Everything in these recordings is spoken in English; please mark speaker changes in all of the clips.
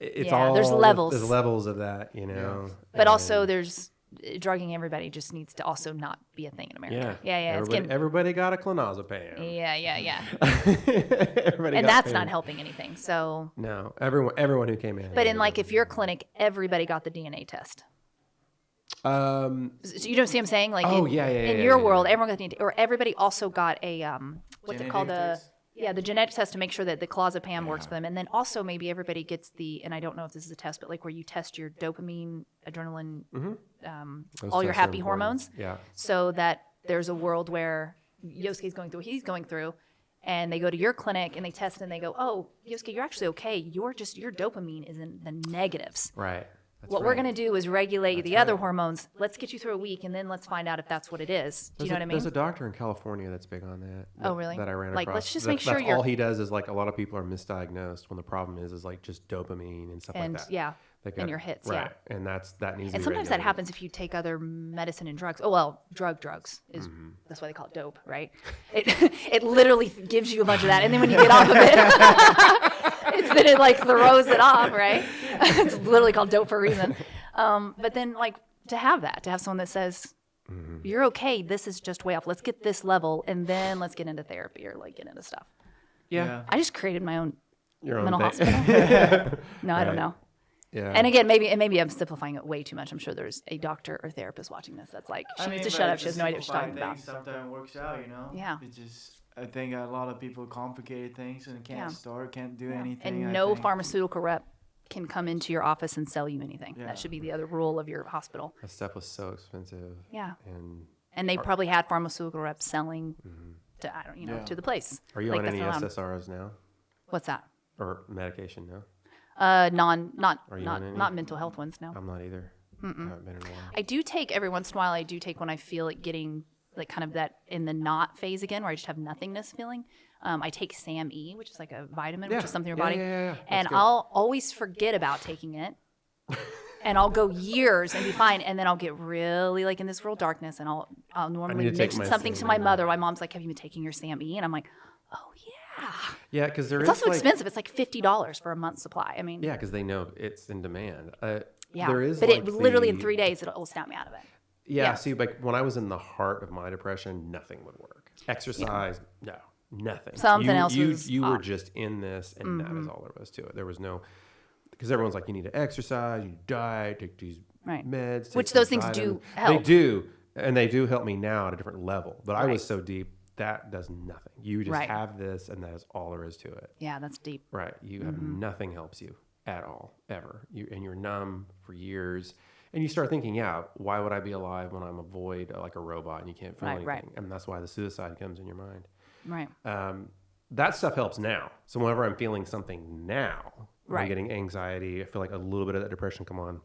Speaker 1: it's
Speaker 2: Yeah,
Speaker 1: all
Speaker 2: there's levels.
Speaker 1: There's levels of that, you know.
Speaker 2: But also, there's eh, drugging everybody just needs to also not be a thing in
Speaker 1: yeah,
Speaker 2: America. Yeah, yeah, it's
Speaker 1: Everybody,
Speaker 2: getting,
Speaker 1: everybody got a clonazepam.
Speaker 2: yeah, yeah, yeah.
Speaker 1: everybody
Speaker 2: And
Speaker 1: got
Speaker 2: that's
Speaker 1: pain.
Speaker 2: not helping anything. So,
Speaker 1: No, everyone, everyone who came in.
Speaker 2: but in like if your clinic, everybody got the DNA test.
Speaker 1: um,
Speaker 2: So you don't see what I'm saying? Like,
Speaker 1: Oh,
Speaker 2: in,
Speaker 1: yeah, yeah,
Speaker 2: in
Speaker 1: yeah,
Speaker 2: your
Speaker 1: yeah,
Speaker 2: world, everyone got the DNA, or everybody also got a um, what's it called?
Speaker 3: Genetic
Speaker 2: The yeah, the genetic test to make sure that the clozapam works for them, and then also maybe everybody gets the and I don't know if this is a test, but like where you test your dopamine, adrenaline, um,
Speaker 1: Mm-hmm. those
Speaker 2: all your
Speaker 1: tests are
Speaker 2: happy
Speaker 1: important.
Speaker 2: hormones,
Speaker 1: Yeah.
Speaker 2: so that there's a world where Yosuke's going through what he's going through. And they go to your clinic and they test and they go, oh, Yosuke, you're actually okay. You're just, your dopamine is in the negatives
Speaker 1: Right. That's
Speaker 2: what
Speaker 1: right.
Speaker 2: we're going to do is regulate the other hormones. Let's get you through a week, and then let's find out if that's what it is. Do
Speaker 1: There's
Speaker 2: you
Speaker 1: a-
Speaker 2: know what I
Speaker 1: There's
Speaker 2: mean?
Speaker 1: a doctor in California that's big on that.
Speaker 2: Oh,
Speaker 1: that-
Speaker 2: really?
Speaker 1: That I ran
Speaker 2: Like,
Speaker 1: across.
Speaker 2: let's just
Speaker 1: That-
Speaker 2: make sure
Speaker 1: that's
Speaker 2: you're-
Speaker 1: all he does is like a lot of people are misdiagnosed when the problem is is like just dopamine and stuff
Speaker 2: And,
Speaker 1: like that.
Speaker 2: yeah,
Speaker 1: They
Speaker 2: and your hits, yeah.
Speaker 1: Right. And that's that needs. to
Speaker 2: and
Speaker 1: be
Speaker 2: sometimes that
Speaker 1: regulated.
Speaker 2: happens if you take other medicine and drugs. Oh well, drug drugs is that's why they call it dope, right? It it literally gives you a bunch of that, and then when you get off of it, it's that it like throws it off, right? it's literally called dope for a reason. Um, but then like to have that, to have someone that says. You're okay. This is just way off. Let's get this level, and then let's get into therapy or like get into stuff.
Speaker 1: Yeah.
Speaker 2: I just created my own
Speaker 1: Your own
Speaker 2: mental
Speaker 1: thing.
Speaker 2: hospital. no, I don't
Speaker 1: Right.
Speaker 2: know.
Speaker 1: Yeah.
Speaker 2: And again, maybe and maybe I'm simplifying it way too much. I'm sure there's a doctor or therapist watching this that's like, she
Speaker 3: I
Speaker 2: needs
Speaker 3: mean,
Speaker 2: to shut
Speaker 3: but
Speaker 2: up. She
Speaker 3: just
Speaker 2: has no idea what she's talking
Speaker 3: simplifying
Speaker 2: about.
Speaker 3: things Sometimes works out, you know.
Speaker 2: Yeah.
Speaker 3: It's just I think a lot of people complicate things and can't
Speaker 2: Yeah.
Speaker 3: start, can't do anything. I
Speaker 2: And no
Speaker 3: think.
Speaker 2: pharmaceutical rep can come into your office and sell you anything.
Speaker 3: Yeah.
Speaker 2: That should be the other rule of your hospital.
Speaker 1: that stuff was so expensive.
Speaker 2: Yeah.
Speaker 1: And
Speaker 2: And they probably had pharmaceutical reps selling to I don't you know
Speaker 3: Mm-hmm. Yeah.
Speaker 2: to the place.
Speaker 1: are you
Speaker 2: Like,
Speaker 1: on
Speaker 2: that's
Speaker 1: any
Speaker 2: not allowed.
Speaker 1: SSRIs now
Speaker 2: What's that?
Speaker 1: or medication? No,
Speaker 2: Uh, non not
Speaker 1: you
Speaker 2: not
Speaker 1: on any?
Speaker 2: not mental health ones. No.
Speaker 1: I'm not either. I haven't been in a while.
Speaker 2: I do take every once in a while. I do take when I feel like getting like kind of that in the not phase again, where I just have nothingness feeling. Um, I take Sam E, which is like a vitamin,
Speaker 1: Yeah.
Speaker 2: which is something in your
Speaker 1: Yeah,
Speaker 2: body,
Speaker 1: yeah, yeah, yeah. That's
Speaker 2: and
Speaker 1: good.
Speaker 2: I'll always forget about taking it. and I'll go years and be fine, and then I'll get really like in this real darkness, and I'll I'll normally
Speaker 1: to take
Speaker 2: mention
Speaker 1: my
Speaker 2: something to
Speaker 1: Sam
Speaker 2: my
Speaker 1: E.
Speaker 2: mother. My mom's like, "Have you been taking your Sam E?" And I'm like, "Oh yeah."
Speaker 1: Yeah, because there is
Speaker 2: It's also
Speaker 1: like,
Speaker 2: expensive. It's like fifty dollars for a month's supply. I mean,
Speaker 1: Yeah, because they know it's in demand. Uh,
Speaker 2: yeah.
Speaker 1: There is,
Speaker 2: but
Speaker 1: like,
Speaker 2: it literally in
Speaker 1: the-
Speaker 2: three days it'll, it'll snap me out of it.
Speaker 1: Yeah,
Speaker 2: Yeah.
Speaker 1: See, like when I was in the heart of my depression, nothing would work. Exercise, no, nothing.
Speaker 2: Something
Speaker 1: you,
Speaker 2: else
Speaker 1: You
Speaker 2: was
Speaker 1: you were
Speaker 2: off.
Speaker 1: just in this, and that
Speaker 2: Mm-hmm.
Speaker 1: is all there was to it. There was no because everyone's like, you need to exercise, you diet, take these
Speaker 2: Right.
Speaker 1: meds, take
Speaker 2: Which
Speaker 1: these
Speaker 2: those things do
Speaker 1: vitamins. They
Speaker 2: help.
Speaker 1: do, and they do help me now at a different level. But I
Speaker 2: Right.
Speaker 1: was so deep that does nothing. You just
Speaker 2: Right.
Speaker 1: have this, and that is all there is to it.
Speaker 2: Yeah, that's deep.
Speaker 1: Right. You have
Speaker 2: Mm-hmm.
Speaker 1: nothing helps you at all, ever. You and you're numb for years. And you start thinking, yeah, why would I be alive when I'm a void uh, like a robot and you can't feel
Speaker 2: Right,
Speaker 1: anything?
Speaker 2: right.
Speaker 1: And that's why the suicide comes in your mind.
Speaker 2: Right.
Speaker 1: Um, that stuff helps now. So whenever I'm feeling something now, when I'm
Speaker 2: Right.
Speaker 1: getting anxiety, I feel like a little bit of that depression come on.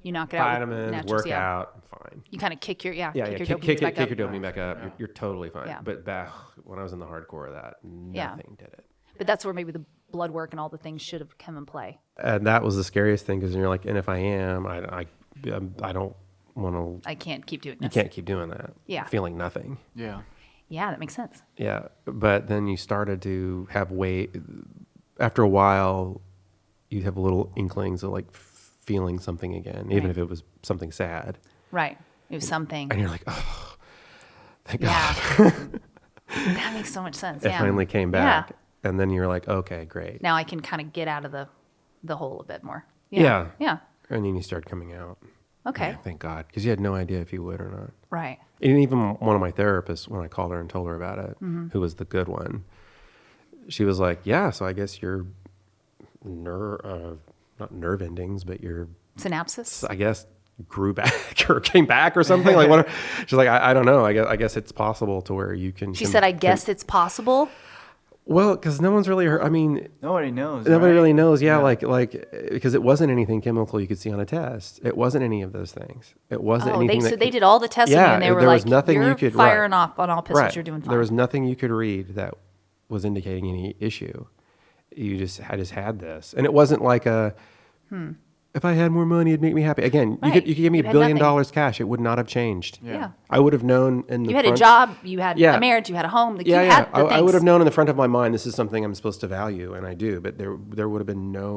Speaker 2: You knock it out. with
Speaker 1: Vitamins,
Speaker 2: naturals,
Speaker 1: work
Speaker 2: yeah.
Speaker 1: out, I'm fine.
Speaker 2: You kind of kick your yeah,
Speaker 1: Yeah, yeah,
Speaker 2: kick
Speaker 1: kick,
Speaker 2: your
Speaker 1: kick,
Speaker 2: dopamine
Speaker 1: kick,
Speaker 2: back up.
Speaker 1: your dopamine back up. You're, you're totally fine.
Speaker 2: Yeah.
Speaker 1: But back when I was in the hardcore of that, nothing
Speaker 2: Yeah.
Speaker 1: did it.
Speaker 2: But that's where maybe the blood work and all the things should have come in play.
Speaker 1: and that was the scariest thing because you're like, and if I am, I I, um, I don't want to.
Speaker 2: I can't keep doing
Speaker 1: You
Speaker 2: this.
Speaker 1: can't keep doing that.
Speaker 2: Yeah.
Speaker 1: feeling nothing.
Speaker 3: Yeah.
Speaker 2: Yeah, that makes sense.
Speaker 1: Yeah, but then you started to have weight. After a while, you have little inklings of like feeling something again, even
Speaker 2: Right.
Speaker 1: if it was something sad,
Speaker 2: Right. It was something.
Speaker 1: and you're like, oh, thank
Speaker 2: Yeah.
Speaker 1: God,
Speaker 2: that makes so much sense.
Speaker 1: it
Speaker 2: yeah.
Speaker 1: finally came
Speaker 2: Yeah.
Speaker 1: back. And then you're like, okay, great.
Speaker 2: Now I can kind of get out of the the hole a bit more.
Speaker 1: Yeah.
Speaker 2: Yeah.
Speaker 1: And then you start coming out.
Speaker 2: Okay.
Speaker 1: Yeah, thank God, because you had no idea if you would or not.
Speaker 2: Right.
Speaker 1: And even one of my therapists, when I called her and told her about it,
Speaker 2: Mm-hmm.
Speaker 1: who was the good one, she was like, "Yeah, so I guess your nerve, uh, not nerve endings, but your,
Speaker 2: Synapses.
Speaker 1: I guess, grew back or came back or something like what?" She's like, I, "I don't know. I guess I guess it's possible to where you can."
Speaker 2: She
Speaker 1: can-
Speaker 2: said, "I
Speaker 1: can-
Speaker 2: guess it's possible."
Speaker 1: well, because no one's really heard. I mean,
Speaker 3: Nobody knows.
Speaker 1: Nobody
Speaker 3: right?
Speaker 1: really knows. Yeah, like like because it wasn't anything chemical you could see on a test. It wasn't any of those things. It wasn't
Speaker 2: Oh, they
Speaker 1: anything.
Speaker 2: so
Speaker 1: that
Speaker 2: they
Speaker 1: could-
Speaker 2: did all the testing
Speaker 1: Yeah,
Speaker 2: and they
Speaker 1: it-
Speaker 2: were
Speaker 1: there
Speaker 2: like,
Speaker 1: was nothing
Speaker 2: "You're
Speaker 1: you could- right.
Speaker 2: firing off on all pistols. You're doing fine."
Speaker 1: There was nothing you could read that was indicating any issue. You just I just had this, and it wasn't like a. If I had more money, it'd make me happy. Again, you
Speaker 2: Hmm. Right.
Speaker 1: could you could give me
Speaker 2: You
Speaker 1: a
Speaker 2: had
Speaker 1: billion
Speaker 2: nothing.
Speaker 1: dollars cash, it would not have changed.
Speaker 2: yeah.
Speaker 1: I would have known in the
Speaker 2: You had a
Speaker 1: front-
Speaker 2: job. You had
Speaker 1: Yeah.
Speaker 2: a marriage. You had a home. Like,
Speaker 1: Yeah,
Speaker 2: you
Speaker 1: yeah.
Speaker 2: Had the
Speaker 1: I, I
Speaker 2: things.
Speaker 1: would have known in the front of my mind this is something I'm supposed to value, and I do. But there there would have been no